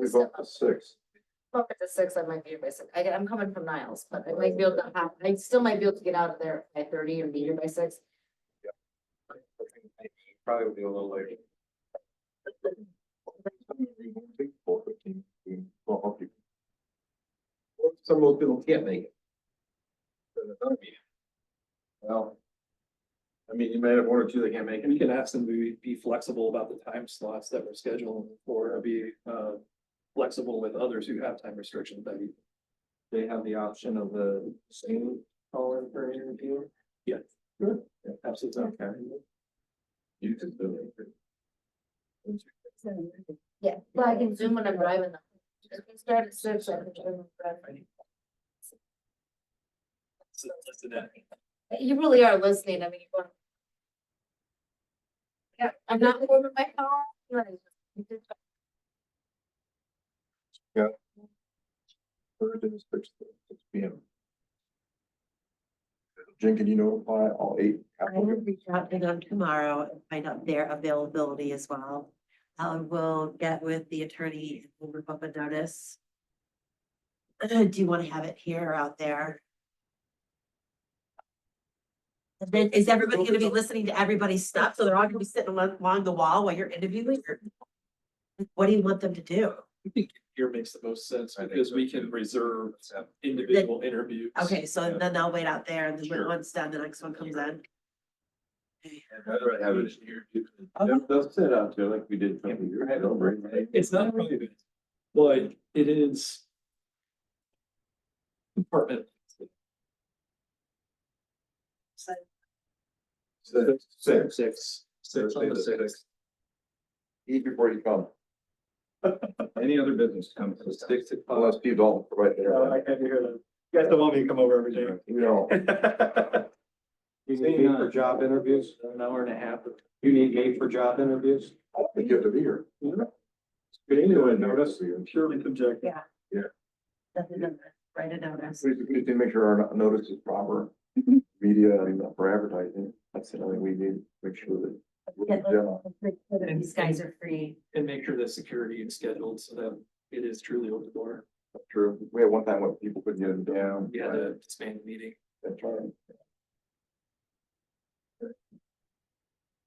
we vote for six. Up at the six, I might be here by six. I get, I'm coming from Niles, but I might be able to have, I still might be able to get out of there by thirty or be here by six. Probably will be a little later. Some of those people can't make it. Then another meeting. Well. I mean, you might have one or two that can't make And it. we can ask them to be- be flexible about the time slots that we're scheduling or be uh flexible with others who have time restrictions that we- They have the option of the same call in for an interview. absolutely. You can do it. Yeah, but I can zoom when I'm driving. though. If we start at six, I can zoom. when I'm driving. So, listen to that. You really are listening. I mean, you are. Yeah, I'm not over my phone. like, Thursday, the sixth, six P M. Jen, can you notify all eight I will applicants? reach out to them tomorrow and find out their availability as well. I will get with the attorney, and rip up a notice. Do you want to have it here or out there? And then is everybody gonna be listening to everybody's stuff? So they're all gonna be sitting along, along the wall while you're interviewing? or- What do you want them to do? I think here makes the most sense I think because so, we too. can reserve individual interviews. Okay, so Yeah. then they'll wait out there and then when Sure. one's done, the next one comes I'd in. rather have it here. Okay. They'll sit out there like we did. a couple years ago, right? It's not private, but it is department. So Six. Six. Six. Six Thursday on the the six. sixth. Eat before you come, Any other business comes to six o'clock? unless Steve Dalton right there. Uh, can't hear that. You guys don't want me to come over every You know, You need me for job interviews, an hour and a half. You need me for job interviews? I don't think you have to be here. Anyway, notice Purely subjective. doesn't matter. Write it down as. We just need to make sure our notice is proper. Media and for advertising, that's the only we need, to make sure that. Yeah. Yeah. These guys are free. And make sure the security is scheduled so that it is truly open door. True, we had one time when people couldn't get them down. We had to disband the meeting. That's right.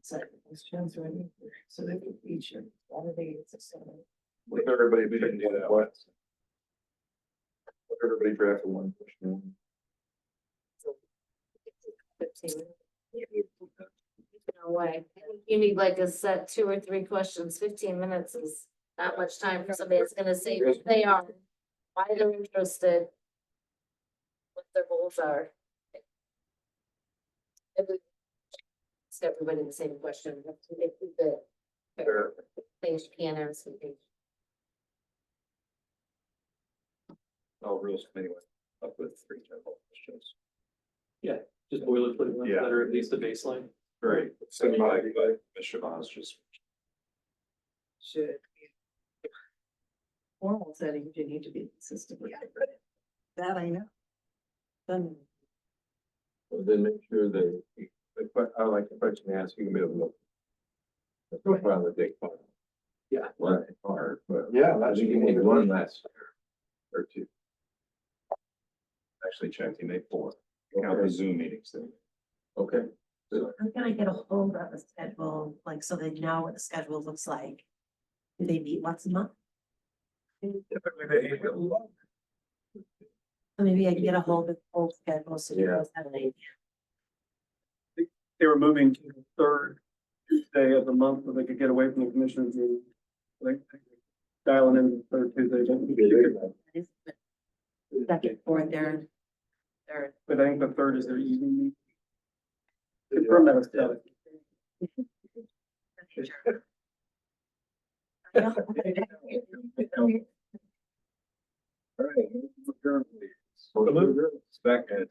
So those trends are in here, so they can feature all of these. so- With everybody being do that, what? With Everybody drafted one. question. Fifteen. No way. You need like a set two or three questions. Fifteen minutes is not much time for somebody that's gonna say who they are, why they're interested, what their goals are. If we ask everybody the same question, if we get the Sure. things you can answer. all rules anyway, up with three general questions. Just boilerplate ones Yeah. that are at least the baseline. Great. Send by, by Mr. Vaz, just. should. be Formal settings, you need to be consistent with. That I know. Then. Then make sure that, the que- I like the question they ask, you can be able to. look. That's no problem, they take fun. Yeah. Well, it's hard, but. Yeah. I think you made one last year, or two. Actually checked, he made four. Count the Okay. Zoom meetings then. Okay. I'm gonna get a hold of a schedule, like, so they know what the schedule looks like. Do they meet once a month? So Maybe I can get a hold of the whole schedule, so you Yeah. guys have an idea. they were moving to the third Tuesday of the month, so they could get away from the commissioners meeting. Like dialing in the third Tuesday, but- That is the Second, fourth, third. Third. but I think the third is their evening. meeting. Confirm that, with Kelly. Second,